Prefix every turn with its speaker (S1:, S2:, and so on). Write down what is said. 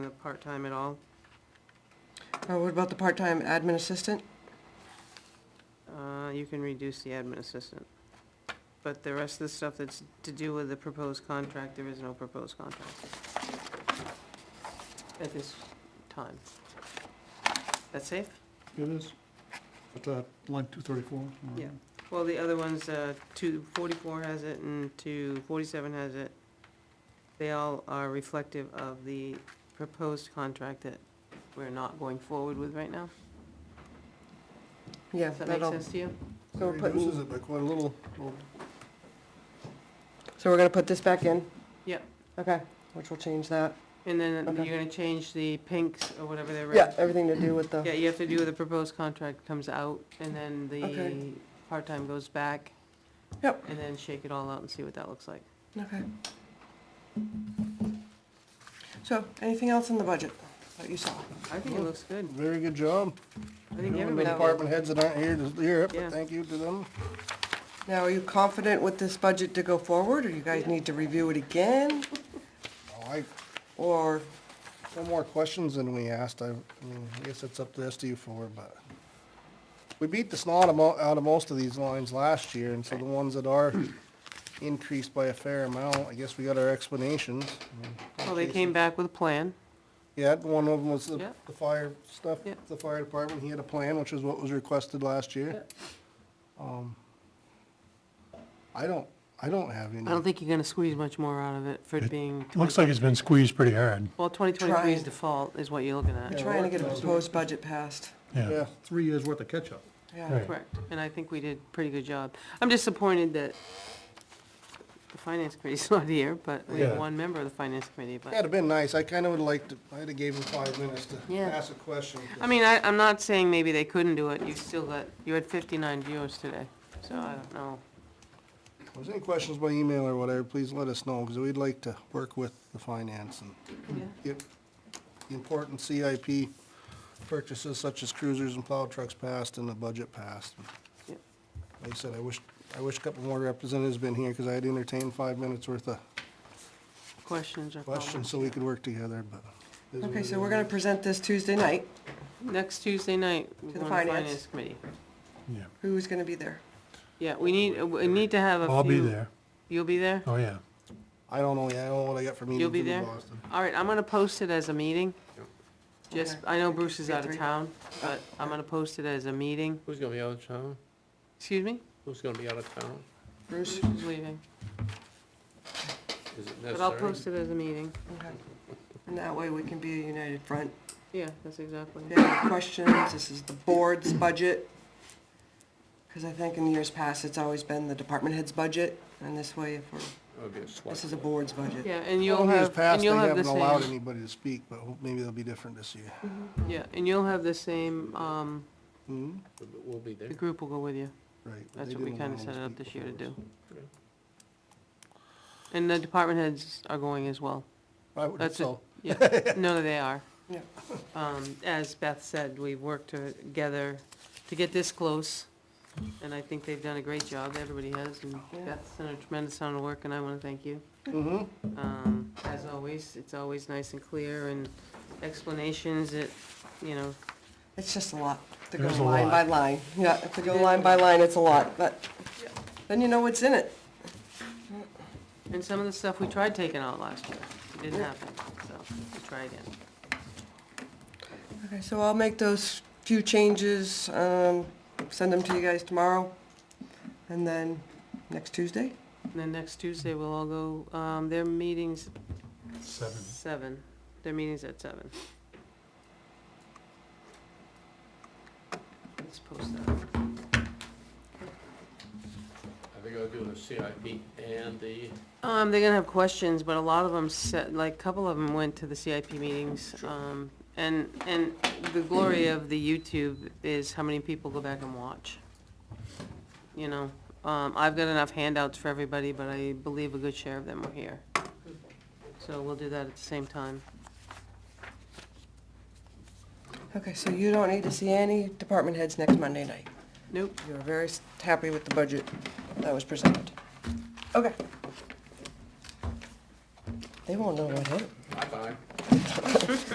S1: a part-time at all.
S2: Uh, What about the part-time admin assistant?
S1: Uh, You can reduce the admin assistant. But the rest of the stuff that's to do with the proposed contract, there is no proposed contract at this time. That safe?
S3: It is. At uh, line 234. or-
S1: Yeah. Well, the other ones, uh, 244 has it and 247 has it. They all are reflective of the proposed contract that we're not going forward with right now.
S2: Yeah.
S1: Does that make
S2: that'll-
S1: sense to you?
S2: So we're
S3: It
S2: putting-
S3: Reduces it by quite a little. Well,
S2: So we're gonna put this back in?
S1: Yep.
S2: Okay, which will change that.
S1: And then
S2: Okay.
S1: you're gonna change the pinks or whatever they're.
S2: Yeah, everything to do with
S1: Yeah,
S2: the,
S1: you have to do, the proposed contract comes out, and then the
S2: Okay.
S1: part-time goes back.
S2: Yep.
S1: And then shake it all out and see what that looks like.
S2: okay. So, anything else in the budget that you saw?
S1: I think it looks good.
S3: Very good job.
S1: I
S3: You
S1: think
S3: know, The
S1: everybody.
S3: department heads that aren't here to hear it,
S1: Yeah.
S3: but thank you to them.
S2: Now, are you confident with this budget to go forward, or you guys need to review it again?
S3: Oh, I,
S2: Or,
S3: no more questions than we asked. I, I mean, I guess it's up to SDU four, but we beat the snot amo- out of most of these lines last year, and so the ones that are increased by a fair amount, I guess we got our explanations. I mean,
S1: Well, they came back with a plan,
S3: Yeah, one of them was the,
S1: Yeah.
S3: the fire stuff,
S1: Yeah.
S3: the fire department, he had a plan, which is what was requested last year. Um, I don't, I don't have any.
S1: I don't think you're gonna squeeze much more out of it for it
S4: It
S1: being,
S4: Looks like it's been squeezed pretty hard,
S1: well, twenty twenty-three is
S2: Trying.
S1: default, is what you're looking
S2: we're
S1: at.
S3: Yeah.
S2: trying to get a proposed budget passed,
S4: yeah.
S3: Yeah, three years worth of catch-up.
S2: yeah.
S4: Right.
S1: Correct, and I think we did a pretty good job. I'm disappointed that the finance committee's not here, but we have
S4: Yeah.
S1: one member of the finance committee, but.
S3: That'd have been nice, I kinda would've liked, to- I'd have gave him five minutes to
S1: Yeah.
S3: ask a question.
S1: I mean, I, I'm not saying maybe they couldn't do it, you still got, you had fifty-nine viewers today, so I don't know.
S3: If there's any questions by email or whatever, please let us know, cause we'd like to work with the finance and get the important CIP purchases such as cruisers and plow trucks passed and the budget passed.
S1: Yep.
S3: Like I said, I wish, I wish a couple more representatives been here, cause I'd entertain five minutes worth of
S1: Questions or
S3: questions
S1: comments?
S3: so we could work together, but. it is what
S2: Okay,
S3: it
S2: so we're
S3: is.
S2: gonna present this Tuesday night.
S1: Next Tuesday night, we're
S2: To the
S1: going to
S2: finance.
S1: finance committee.
S4: Yeah.
S2: Who's gonna be there?
S1: Yeah, we need, uh, we need to have a few.
S4: I'll be there.
S1: You'll be there?
S4: Oh, yeah.
S3: I don't know, yeah, I don't know what I got for meetings
S1: You'll be
S3: in
S1: there?
S3: Boston.
S1: All right, I'm gonna post it as a meeting. Just,
S2: Okay.
S1: I know Bruce is
S2: Three,
S1: out of
S2: three.
S1: town, but I'm gonna post it as a meeting.
S5: Who's gonna be out of town?
S1: Excuse me?
S5: Who's gonna be out of town?
S1: Bruce is leaving,
S5: Is it
S1: but I'll
S5: necessary?
S1: post it as a meeting.
S2: Okay. And that way we can be a united front.
S1: Yeah, that's exactly.
S2: If you have any questions, this is the board's budget. Because I think in years past, it's always been the department head's budget, and this way, if we're,
S5: It'll be a
S2: this
S5: select
S2: is a
S5: board.
S2: board's budget.
S1: Yeah, and
S3: Well,
S1: you'll
S3: years
S1: have,
S3: past,
S1: and you'll
S3: they
S1: have the
S3: haven't allowed
S1: same,
S3: anybody to speak, but ho- maybe they'll be different this year.
S1: yeah, and you'll have the same, um,
S3: Hmm,
S5: We'll- We'll be there.
S1: the group will go with you.
S3: right. but
S1: That's
S3: they
S1: what we
S3: didn't allow
S1: kinda
S3: them
S1: set
S3: to
S1: it up
S3: speak
S1: this year to
S3: before,
S1: do.
S3: so.
S1: And the department heads are going as well.
S3: I would,
S1: That's it.
S3: so,
S1: Yeah, no, they are.
S2: Yeah.
S1: Um, as Beth said, we've worked together to get this close, and I think they've done a great job, everybody has, and
S2: Yeah.
S1: Beth's done a tremendous amount of work, and I wanna thank you.
S3: mhm.
S1: Um, as always, it's always nice and clear, and explanations, it, you know,
S2: It's just a lot to go
S4: There's a
S2: line by
S4: lot.
S2: line. Yeah, to go line by line, it's a lot, but then you know what's in it.
S1: and some of the stuff we tried taking out last year, it didn't happen, so, we'll try again.
S2: Okay, so I'll make those few changes, um, send them to you guys tomorrow, and then next Tuesday?
S1: And then next Tuesday, we'll all go, um, their meeting's
S4: Seven.
S1: Seven. Their meeting's at seven. Let's post that.
S5: I think I'll do the CIP and the,
S1: Um, they're gonna have questions, but a lot of them said, like, a couple of them went to the CIP meetings.
S5: Sure.
S1: Um, and, and the glory of the YouTube is how many people go back and watch. You know, um, I've got enough handouts for everybody, but I believe a good share of them are here. So we'll do that at the same time.
S2: Okay, so you don't need to see any department heads next Monday night.
S1: Nope,
S2: You're very s- happy with the budget that was presented. Okay. They won't know what hit.
S5: bye-bye.